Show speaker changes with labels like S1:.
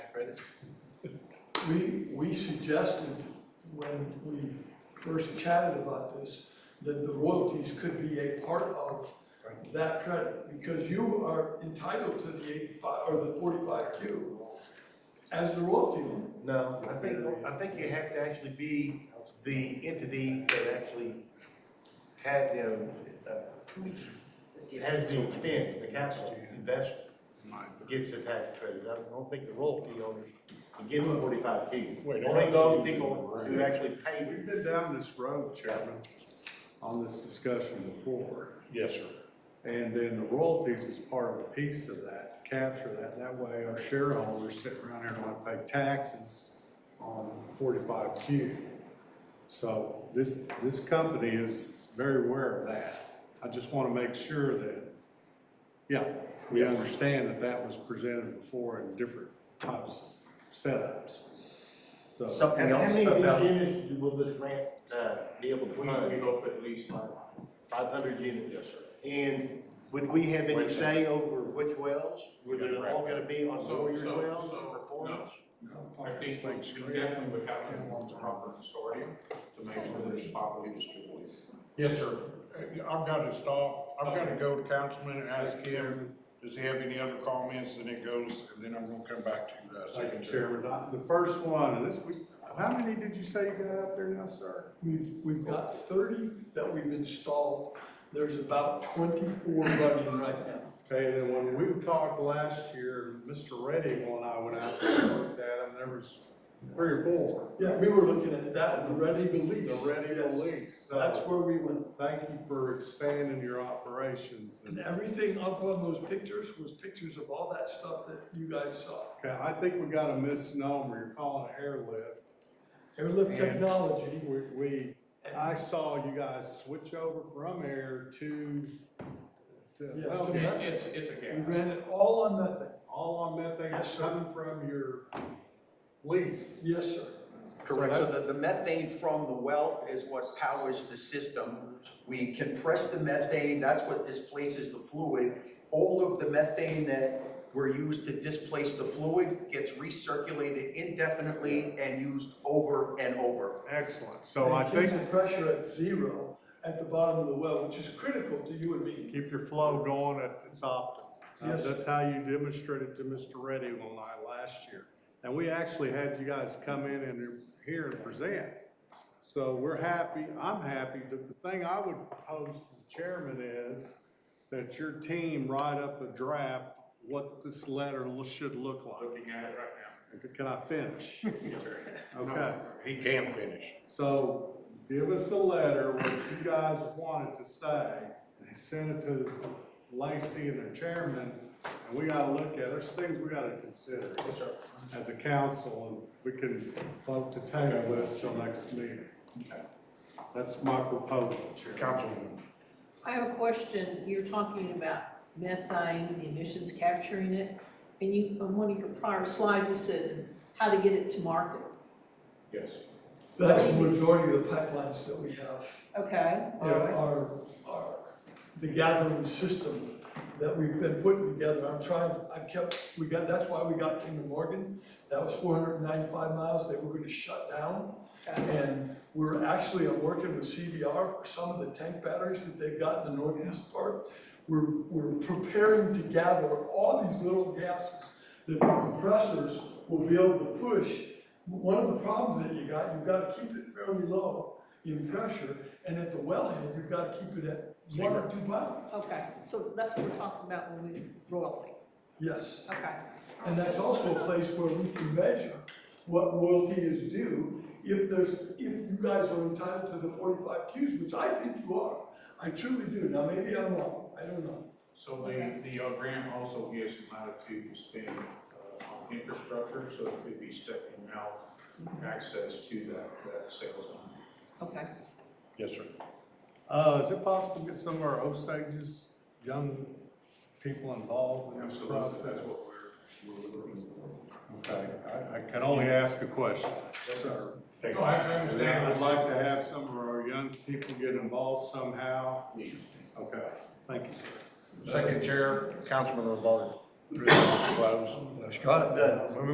S1: credit?
S2: We, we suggested when we first chatted about this, that the royalties could be a part of
S1: Right.
S2: that credit, because you are entitled to the eighty-five, or the forty-five Q as the royalty owner.
S1: No, I think, I think you have to actually be the entity that actually had, you know, uh, has the expense, the capital investment, gets the tax credit. I don't think the royalty owners can give them forty-five Q.
S3: Wait,
S1: Only
S3: that's-
S1: those people who actually paid
S3: We've been down this road, Chairman, on this discussion before.
S4: Yes, sir.
S3: And then the royalties is part of a piece of that, capture that. That way our shareholders sit around here and want to pay taxes on forty-five Q. So this, this company is very aware of that. I just want to make sure that, yeah, we understand that that was presented before in different types of setups. So,
S1: something
S4: And how
S1: else
S4: many of these
S1: about. units will this grant, uh, be able to
S5: We hope at least five.
S1: Five hundred units. Yes, sir. And would we have any say over which wells? Were they all gonna be on
S5: So-
S1: Warrior's
S5: so-
S1: Well
S5: so-
S1: or Performance?
S5: I think we definitely would have to form the proper consortium to make sure that it's properly distributed.
S4: Yes, sir. Uh, I've got to stop. I've got to go to councilman and ask him, does he have any other comments? And it goes, and then I'm gonna come back to, uh,
S3: Second
S4: secretary.
S3: Chairman, uh, the first one, and this, was how many did you say you got out there now, sir?
S2: We've, we've got thirty that we've installed, there's about twenty-four running right now.
S3: Okay, and then when we talked last year, Mr. Redding and I went out there and looked at them, there was three or four.
S2: Yeah, we were looking at that, the Red Eagle lease.
S3: The Redding
S2: Yes.
S3: lease,
S2: That's
S3: so
S2: where we went,
S3: thank you for expanding your operations.
S2: and
S3: And,
S2: everything up on those pictures was pictures of all that stuff that you guys saw.
S3: Okay, I think we got a misnomer, you're calling it airlift.
S2: Airlift
S3: And-
S2: technology,
S3: We, we,
S2: and
S3: I saw you guys switch over from air to, to,
S2: Yeah.
S3: well,
S5: It- It's, it's a
S2: we
S5: gap.
S2: ran it all on methane.
S3: all on methane
S2: Yes,
S3: is
S2: sir.
S3: coming from your lease.
S2: Yes, sir.
S3: So
S6: Correct, so
S3: that's-
S6: the, the methane from the well is what powers the system. We compress the methane, that's what displaces the fluid. All of the methane that were used to displace the fluid gets recirculated indefinitely and used over and over.
S3: Excellent, so I
S2: It
S3: think
S2: Keeps the pressure at zero at the bottom of the well, which is critical to you and me.
S3: Keep your flow going at its optimum. Uh,
S2: Yes, sir.
S3: That's how you demonstrated to Mr. Reddy and I last year. And we actually had you guys come in and here and present. So we're happy, I'm happy, but the thing I would propose to the chairman is that your team write up a draft, what this letter lo- should look like.
S5: Looking at it right
S3: Can I finish? Okay.
S4: He can finish.
S3: So give us a letter, what you guys wanted to say, and send it to Lacey and their chairman, and we gotta look at, there's things we gotta consider as a council, and we can vote to table this till next meeting. That's my proposal, Chairman.
S4: Councilman,
S7: I have a question. You're talking about methane, the emissions capturing it. And you, on one of your prior slides, you said how to get it to market.
S5: Yes.
S2: That's the majority of the pipelines that we have.
S7: Okay, all
S2: Our,
S7: right.
S2: our, our, the gathering system that we've been putting together, I'm trying, I've kept, we got, that's why we got King and Morgan. That was four hundred and ninety-five miles that we're gonna shut down.
S7: Okay.
S2: And we're actually, I'm working with CBR for some of the tank batteries that they've got in the northeast part. We're, we're preparing to gather all these little gases that the compressors will be able to push. One of the problems that you got, you've got to keep it fairly low in pressure, and at the wellhead, you've got to keep it at one or two pounds.
S7: Okay, so that's what we're talking about when we royalty.
S2: Yes.
S7: Okay.
S2: And that's also a place where we can measure what royalty is due, if there's, if you guys are entitled to the forty-five Qs, which I think you are. I truly do, now maybe I'm wrong, I don't know.
S5: So the, the uh, grant also gives them latitude to spend uh, on infrastructure, so it could be stepping out access to that, that sales line.
S7: Okay.
S4: yes, sir.
S3: Uh, is it possible to get some of our Osage's young people involved in this
S5: Absolutely,
S3: process?
S5: that's what we're, we're looking for.
S3: Okay, I, I can only ask a question, sir.
S4: Thank
S5: No, I I
S3: And I
S5: understand.
S3: would like to have some of our young people get involved somehow. Okay, thank you, sir.
S4: Second chair, Councilman Rivard. Close.
S8: Scott, uh,